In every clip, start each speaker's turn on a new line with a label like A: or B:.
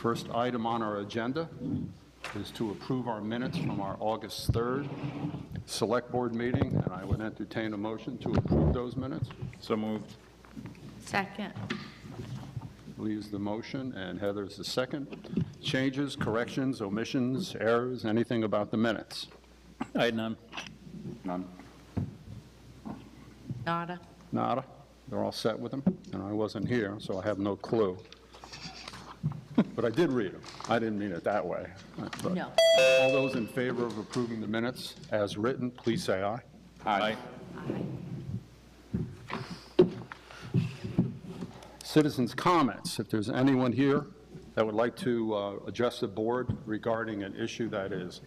A: First item on our agenda is to approve our minutes from our August 3rd Select Board meeting, and I would entertain a motion to approve those minutes.
B: So moved.
C: Second.
A: Leaves the motion, and Heather's the second. Changes, corrections, omissions, errors, anything about the minutes?
B: I had none.
A: None.
C: Nada.
A: Nada? They're all set with them? And I wasn't here, so I have no clue. But I did read them. I didn't mean it that way. but-
C: No.
A: All those in favor of approving the minutes as written, please say aye.
B: Aye.
A: Citizens' comments, if there's anyone here that would like to uh, address the board regarding an issue that is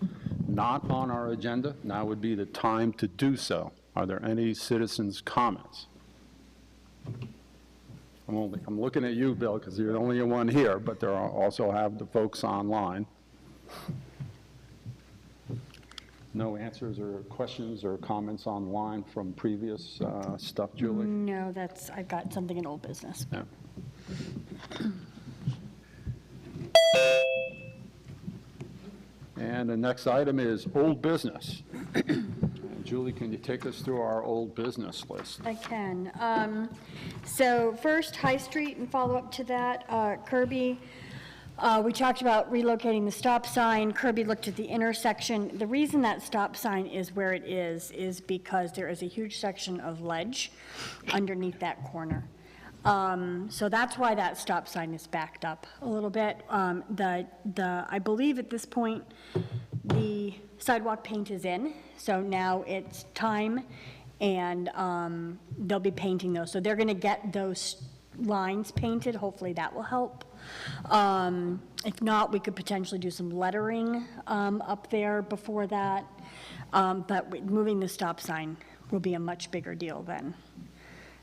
A: not on our agenda, now would be the time to do so. Are there any citizens' comments? I'm only, I'm looking at you, Bill, because you're the only one here, but there are, also have the folks online. No answers or questions or comments online from previous uh, stuff, Julie?
D: No, that's, I've got something in old business.
A: Yeah. And the next item is old business. Julie, can you take us through our old business list?
D: I can. Um, So first, High Street, and follow up to that, uh, Kirby, uh, we talked about relocating the stop sign. Kirby looked at the intersection. The reason that stop sign is where it is, is because there is a huge section of ledge underneath that corner. Um, So that's why that stop sign is backed up a little bit. Um, The, the, I believe at this point, the sidewalk paint is in, so now it's time, and um, they'll be painting those. So they're going to get those lines painted, hopefully that will help. Um, If not, we could potentially do some lettering um, up there before that, Um, but we- moving the stop sign will be a much bigger deal then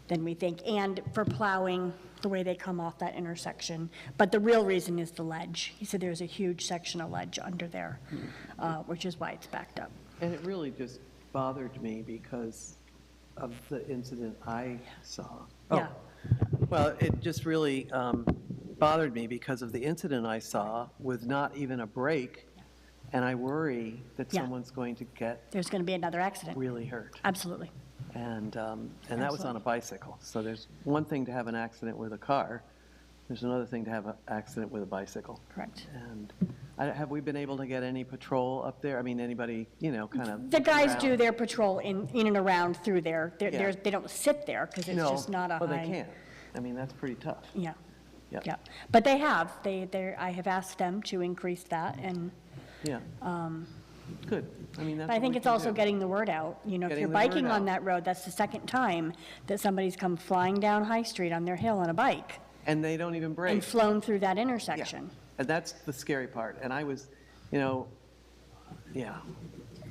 D: than we think, and for plowing, the way they come off that intersection. But the real reason is the ledge. He said there's a huge section of ledge under there, uh, which is why it's backed up.
E: And it really just bothered me because of the incident I saw. Oh,
D: Yeah.
E: Well, it just really um, bothered me because of the incident I saw with not even a break. And I worry that
D: Yeah.
E: someone's going to get
D: There's going to be another accident.
E: really hurt.
D: Absolutely.
E: And, um, and that was on a bicycle. So there's one thing to have an accident with a car. There's another thing to have an accident with a bicycle.
D: Correct.
E: And I- have we been able to get any patrol up there? I mean, anybody, you know, kind of.
D: The guys
E: around?
D: do their patrol in, in and around through there. They're-
E: Yeah.
D: they're- They don't sit there because it's
E: No.
D: just not a high.
E: Well, they can't. I mean, that's pretty tough.
D: Yeah,
E: Yeah.
D: yeah. But they have, they, they're, I have asked them to increase that, and,
E: Yeah. Good. I mean, that's
D: Um, but I
E: what
D: think
E: we
D: it's
E: can
D: also
E: do.
D: getting the word out. You know, if
E: Getting
D: you're
E: the word
D: biking on
E: out.
D: that road, that's the second time that somebody's come flying down High Street on their hill on a bike.
E: And they don't even break.
D: and flown through that
E: Yeah.
D: intersection.
E: And that's the scary part. And I was, you know, yeah,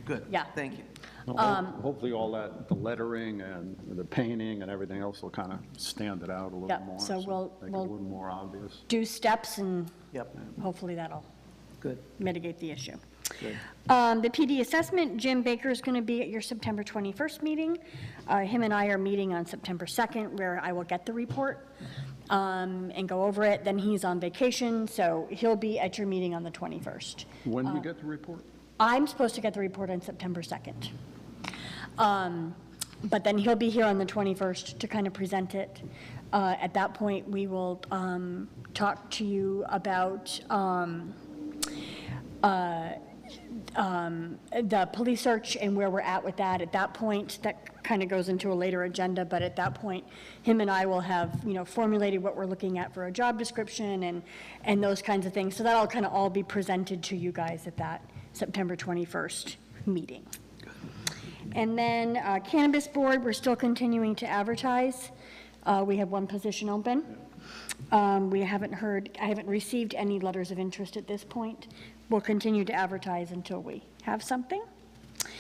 E: good.
D: Yeah.
E: Thank you.
A: Well,
D: Um,
A: ho- Hopefully, all that, the lettering and the painting and everything else will kind of stand it out a little
D: Yeah,
A: more.
D: so we'll-
A: Make it a
D: we'll-
A: little more obvious.
D: Do steps, and
E: Yep,
D: hopefully that'll
E: good,
D: mitigate the issue.
E: good.
D: Um, The PD assessment, Jim Baker is going to be at your September 21st meeting. Uh, Him and I are meeting on September 2nd, where I will get the report um, and go over it. Then he's on vacation, so he'll be at your meeting on the 21st.
A: When
D: Uh,
A: do you get the report?
D: I'm supposed to get the report on September 2nd. Um, But then he'll be here on the 21st to kind of present it. Uh, At that point, we will um, talk to you about um, uh, um, the police search and where we're at with that. At that point, that kind of goes into a later agenda, but at that point, him and I will have, you know, formulated what we're looking at for a job description and, and those kinds of things. So that'll kind of all be presented to you guys at that September 21st meeting. And then uh, cannabis board, we're still continuing to advertise. Uh, We have one position open. Um, We haven't heard, I haven't received any letters of interest at this point. We'll continue to advertise until we have something.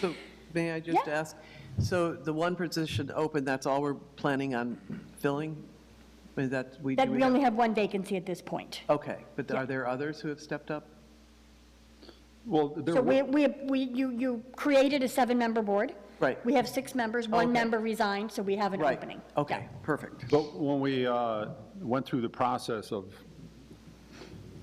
E: So may I just
D: Yeah.
E: ask, so the one position open, that's all we're planning on filling? Is that, we do?
D: That we only have one vacancy at this point.
E: Okay, but are there others who have stepped up?
A: Well, there
D: So
A: were-
D: we, we, we you, you created a seven-member board.
E: Right.
D: We have six members, one
E: Okay.
D: member resigned, so we have an
E: Right.
D: opening.
E: Okay, perfect.
A: But when we uh, went through the process of